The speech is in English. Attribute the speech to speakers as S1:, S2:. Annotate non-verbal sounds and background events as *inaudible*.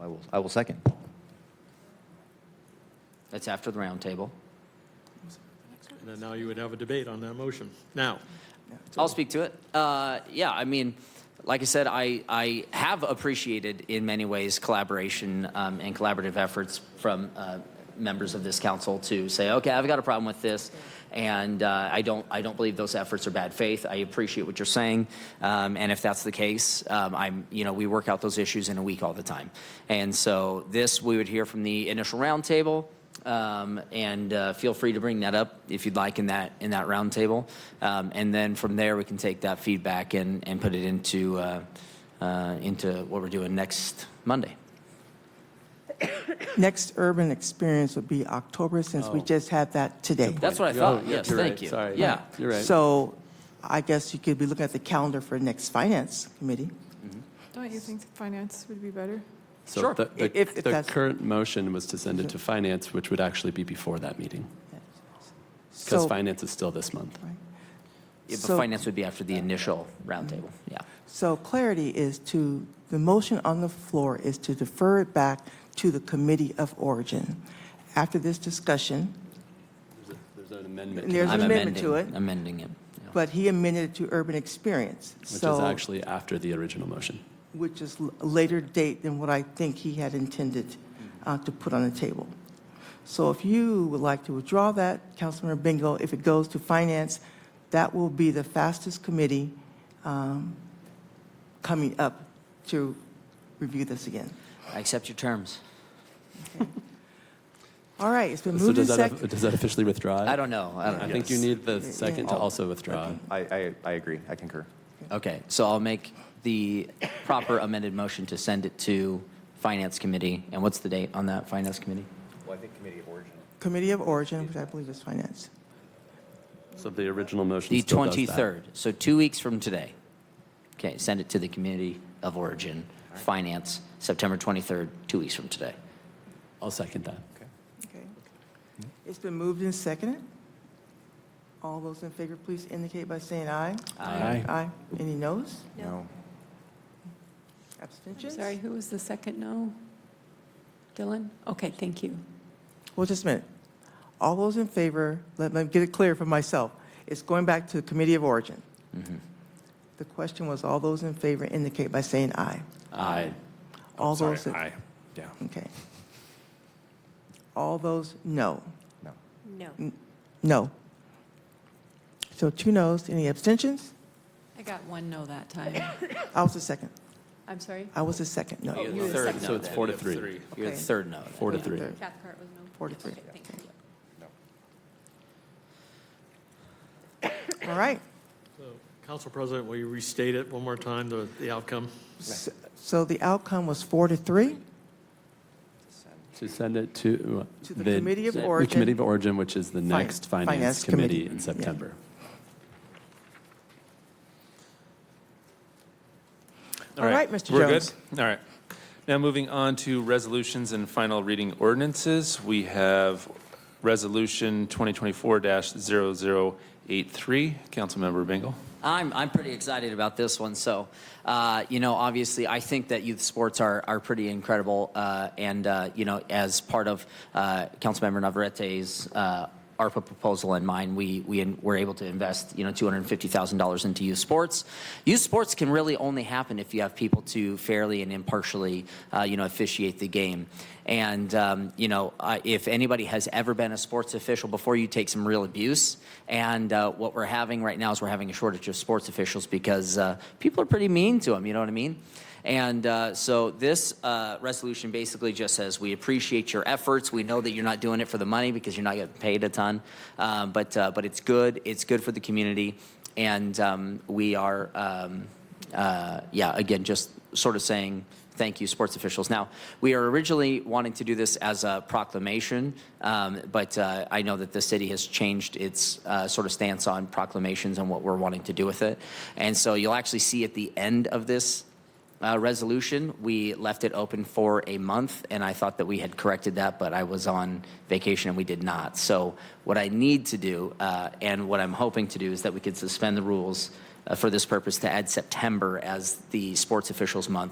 S1: I will, I will second.
S2: That's after the roundtable.
S3: And then now you would have a debate on that motion. Now,
S2: I'll speak to it. Uh, yeah, I mean, like I said, I, I have appreciated in many ways collaboration um, and collaborative efforts from uh, members of this council to say, okay, I've got a problem with this, and uh, I don't I don't believe those efforts are bad faith. I appreciate what you're saying, um, and if that's the case, um, I'm you know we work out those issues in a week all the time, and so this we would hear from the initial roundtable. Um, and uh, feel free to bring that up if you'd like in that in that roundtable, um, and then from there we can take that feedback and, and put it into uh, uh, into what we're doing next Monday.
S4: Next urban experience would be October, since we just had that today.
S2: That's what I
S5: Oh,
S2: thought.
S5: yeah,
S2: yes,
S5: you're
S2: thank
S5: right.
S2: you.
S5: Sorry.
S2: Yeah,
S5: You're right.
S4: So I guess you could be looking at the calendar for next finance committee.
S6: Don't you think finance would be better?
S5: So
S2: Sure.
S5: the- The
S4: If- if
S5: the
S4: that's-
S5: current motion was to send it to finance, which would actually be before that meeting, because
S4: So,
S5: finance is still this month.
S2: Yeah, but
S4: So-
S2: finance would be after the initial roundtable. Yeah.
S4: so clarity is to, the motion on the floor is to defer it back to the committee of origin. After this discussion,
S5: There's an amendment,
S4: and there's an
S2: I'm
S4: amendment to it,
S2: amending- Amending it. Yeah.
S4: but he amended it to urban experience.
S5: which is
S4: So-
S5: actually after the original motion.
S4: which is l- a later date than what I think he had intended uh, to put on the table. So if you would like to withdraw that, Councilmember Bingo, if it goes to Finance, that will be the fastest committee um, coming up to review this again.
S2: I accept your terms.
S4: All right, it's been
S5: So
S4: moved and
S5: does that,
S4: seconded.
S5: does that officially withdraw? it?
S2: I don't know. I don't know.
S5: I think you need the second
S4: Oh.
S5: to also withdraw. it.
S1: I, I, I agree, I concur.
S2: Okay, so I'll make the proper amended motion to send it to Finance Committee. And what's the date on that, Finance Committee?
S1: Well, I think committee of origin.
S4: Committee of Origin, which I believe is Finance.
S5: So the original motion
S2: The
S5: still does that.
S2: 23rd, so two weeks from today. Okay, send it to the Community of Origin, Finance, September 23rd, two weeks from today.
S5: I'll second that.
S4: Okay. It's been moved and seconded. All those in favor, please indicate by saying aye.
S5: Aye.
S4: Aye. Any noes?
S1: No.
S4: Abstentions?
S7: Sorry, who was the second no? Dylan? Okay, thank you.
S4: Well, just a minute. All those in favor, let me get it clear for myself. It's going back to the Committee of Origin. The question was, all those in favor indicate by saying aye.
S5: Aye.
S4: All those, that-
S8: Aye, yeah.
S4: okay. All those, no.
S1: No.
S7: No.
S4: No. So two noes, any abstentions?
S7: I got one no that time.
S4: I was the second.
S7: *laughs* I'm sorry?
S4: I was the second, no.
S3: Oh.
S2: You're
S7: you
S2: the
S7: were
S2: third
S7: second.
S2: no
S5: So it's
S2: then.
S5: four to three.
S2: You're the
S4: Okay.
S2: third no.
S5: Four to three.
S4: Third.
S7: Cathcart was no?
S4: Four to three.
S7: Okay, thank you.
S4: All right.
S3: Council President, will you restate it one more time, the, the outcome?
S4: S- So the outcome was four to three.
S5: To send it to. uh,
S4: To the Committee of
S5: the
S4: Origin.
S5: Committee of Origin, which is the next
S4: Finance
S5: Finance
S4: Committee.
S5: Committee in
S4: Yeah.
S5: September.
S4: All right, Mr.
S8: We're good?
S4: Jones.
S8: All right. Now, moving on to resolutions and final reading ordinances, we have Resolution 2024-0083. Councilmember Bingle.
S2: I'm, I'm pretty excited about this one. So, uh, you know, obviously, I think that youth sports are, are pretty incredible. Uh, and, uh, you know, as part of uh, Councilmember Navarrete's uh, ARPA proposal and mine, we, we in- were able to invest, you know, $250,000 into youth sports. Youth sports can really only happen if you have people to fairly and impartially, uh, you know, officiate the game. And, um, you know, uh, if anybody has ever been a sports official before, you take some real abuse. And uh, what we're having right now is we're having a shortage of sports officials because uh, people are pretty mean to them, you know what I mean? And uh, so this uh, resolution basically just says we appreciate your efforts. We know that you're not doing it for the money because you're not getting paid a ton, um, but uh, but it's good. It's good for the community, and um, we are um, uh, yeah, again, just sort of saying thank you, sports officials. Now, we are originally wanting to do this as a proclamation, um, but uh, I know that the city has changed its uh, sort of stance on proclamations and what we're wanting to do with it. And so you'll actually see at the end of this uh, resolution, we left it open for a month, and I thought that we had corrected that, but I was on vacation and we did not. So what I need to do, uh, and what I'm hoping to do, is that we could suspend the rules uh, for this purpose to add September as the sports officials month.